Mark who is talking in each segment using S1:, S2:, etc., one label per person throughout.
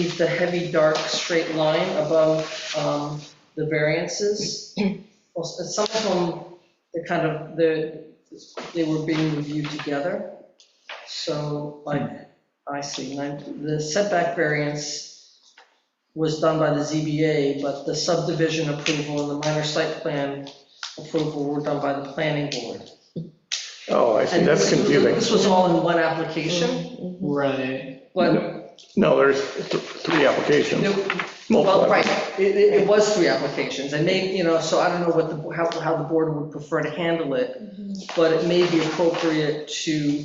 S1: leave the heavy, dark, straight line above um, the variances. Well, s- Some of them, they're kind of, they they were being reviewed together. So like, I see, nine- the setback variance was done by the ZBA, but the subdivision approval and the minor site plan approval were done by the planning board.
S2: Oh, I see,
S1: And
S2: that's
S1: this was-
S2: confusing.
S1: This was all in one application,
S3: Right.
S2: Mm-hmm.
S1: but,
S2: No, there's th- three applications, multiple.
S1: well, right, it, it it was three applications, and they, you know, so I don't know what the, how, how the board would prefer to handle it, but it may be appropriate to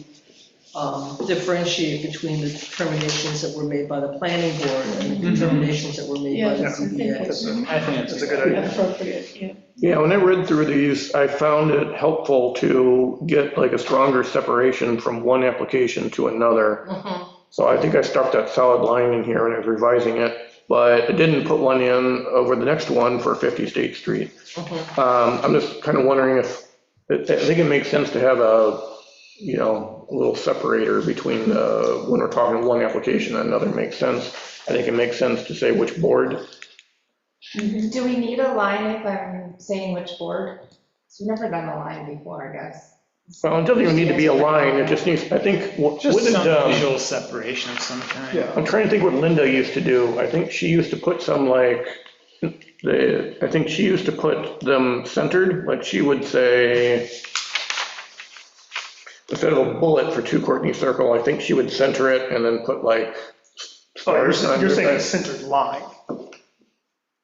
S1: um, differentiate between the determinations that were made by the planning board and the
S3: Mhm.
S1: determinations that were made by
S4: Yeah,
S1: the
S4: that's, I think
S1: ZBA.
S4: that's
S3: I think
S5: That's
S3: it's
S5: a
S3: a
S5: good
S3: good
S5: idea.
S4: appropriate, yeah.
S2: Yeah, when I read through these, I found it helpful to get like a stronger separation from one application to another.
S1: Mhm.
S2: So I think I stuck that solid line in here and I was revising it, but I didn't put one in over the next one for 50 State Street.
S1: Mhm.
S2: Um, I'm just kind of wondering if, I I think it makes sense to have a, you know, a little separator between the, when we're talking one application and another makes sense. I think it makes sense to say which board
S6: Mm-hmm.
S7: Do we need a line if I'm saying which board? 'Cause We've never done a line before, I guess.
S2: Well, it doesn't even need to be a line, it just needs, I think, what-
S3: Just
S2: wouldn't,
S3: some
S2: um,
S3: visual separation of some kind.
S5: Yeah.
S2: I'm trying to think what Linda used to do. I think she used to put some like, the, I think she used to put them centered, like she would say, instead of a bullet for Two Courtney Circle, I think she would center it and then put like.
S5: Oh, you're
S2: stars
S5: saying
S2: under
S5: you're
S2: it.
S5: saying a centered line?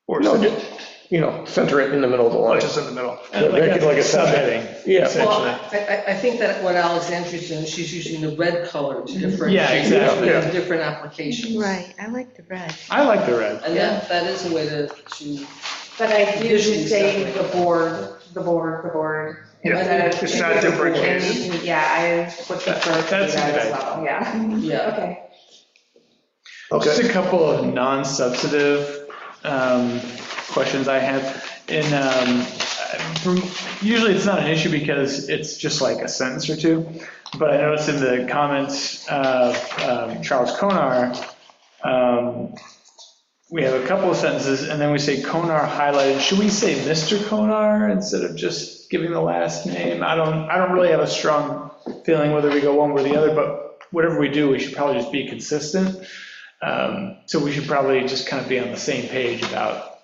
S5: Or
S2: No,
S5: something,
S2: just, you know, center it in the middle of the line.
S5: just in the middle?
S3: Uh,
S2: Make it
S3: that's
S2: like a
S3: subheading.
S2: Yeah,
S1: Well,
S3: Essentially.
S1: I, I- I think that what Alexandria's doing, she's using the red color to
S3: Yeah,
S1: differentiate
S3: exactly.
S1: between the different applications.
S6: Right, I like the red.
S3: I like the red.
S1: And that, that is a way to, to,
S7: But I do
S1: Visually
S7: just say
S1: separate.
S7: the board, the board, the board.
S5: Yeah,
S7: instead of-
S5: it's not differentiated.
S7: And, Yeah, I would prefer to do
S3: That's a
S7: that
S3: good
S7: as
S3: idea.
S7: well, yeah.
S1: yeah.
S7: Okay.
S2: okay.
S3: Just a couple of non-substantive um, questions I have. And um, from- usually it's not an issue because it's just like a sentence or two. But I noticed in the comments of um, Charles Conar, um, we have a couple of sentences and then we say Conar highlighted. Should we say Mr. Conar instead of just giving the last name? I don't, I don't really have a strong feeling whether we go one way or the other, but whatever we do, we should probably just be consistent. Um, So we should probably just kind of be on the same page about,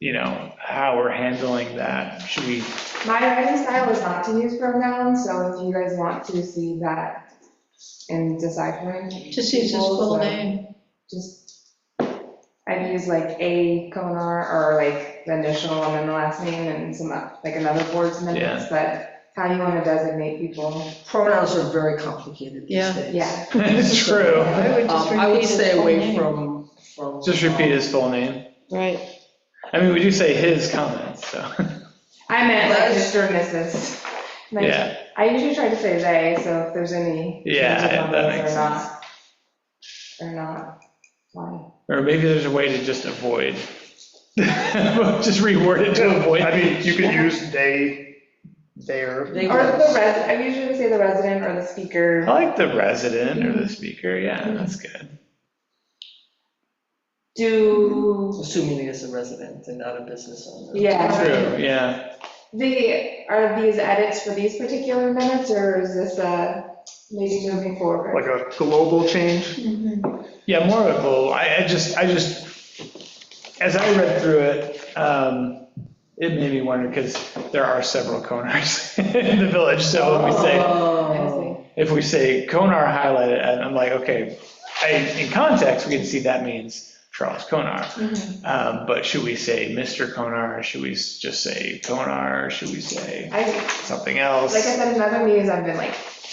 S3: you know, how we're handling that. Should we,
S7: My writing style is not to use pronouns, so if you guys want to see that in deciphering.
S4: Just use his full
S7: people's, uh,
S4: name.
S7: Just, I've used like a Conar or like the initial and then the last name and some, uh, like another board's minutes, but how you want to designate people.
S1: Pronouns are very complicated these
S4: Yeah.
S1: days.
S7: Yeah,
S3: it's true,
S4: I would just
S1: Um, I would
S4: repeat his
S1: stay
S4: full
S1: away
S4: name.
S1: from, from. um,
S3: just repeat his full name.
S4: Right,
S3: I mean, we do say his comments, so,
S7: I
S1: Well,
S7: meant like
S1: that's-
S7: Mr. and Mrs. Like,
S3: yeah,
S7: I usually try to say they, so if there's any.
S3: Yeah,
S7: changes on
S3: that
S7: those
S3: makes
S7: or not- Or not, why?
S3: or maybe there's a way to just avoid. Just reword it to avoid.
S5: I mean, you could use they, their.
S1: They
S7: Or
S1: were-
S7: the resident, I usually say the resident or the
S3: I
S7: speaker.
S3: like the resident or the speaker, yeah, that's good.
S7: Do,
S1: Assuming he is a resident and not a business owner.
S7: yeah.
S3: True, yeah.
S7: The, are these edits for these particular minutes, or is this uh maybe moving
S5: Like
S7: forward?
S5: a global change?
S6: Mm-hmm.
S3: Yeah, more of a goal. I, I just, I just, as I read through it, um, it made me wonder, because there are several Conars in the village, so when we say,
S7: I
S1: Oh,
S7: see.
S3: if we say Conar highlighted, and I'm like, okay, I, in context, we can see that means Charles Conar.
S7: Mhm.
S3: Um, but should we say Mr. Conar? Should we s- just say Conar? Should we say
S7: I,
S3: something else?
S7: like I said, in other meetings, I've been like,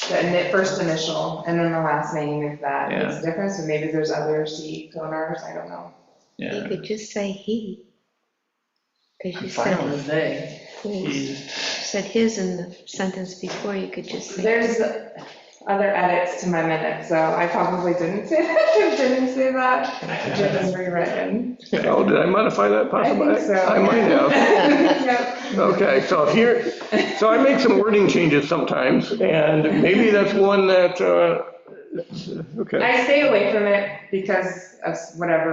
S7: the ini- first initial and then the last name, if that makes a difference, and maybe there's other C conars, I don't know.
S6: You
S3: Yeah.
S6: could just say he. Because
S3: I'm
S6: you
S3: fine
S6: said
S1: the they.
S6: his, you said his in the sentence before, you could just say.
S7: There's other edits to my minutes, so I probably didn't say that, didn't say that, it was rewritten.
S2: Oh, did I modify that
S7: I
S2: possibly?
S7: think so.
S2: I might have.
S7: Yep.
S2: Okay, so here, so I make some wording changes sometimes, and maybe that's one that uh, Okay.
S7: I stay away from it because of whatever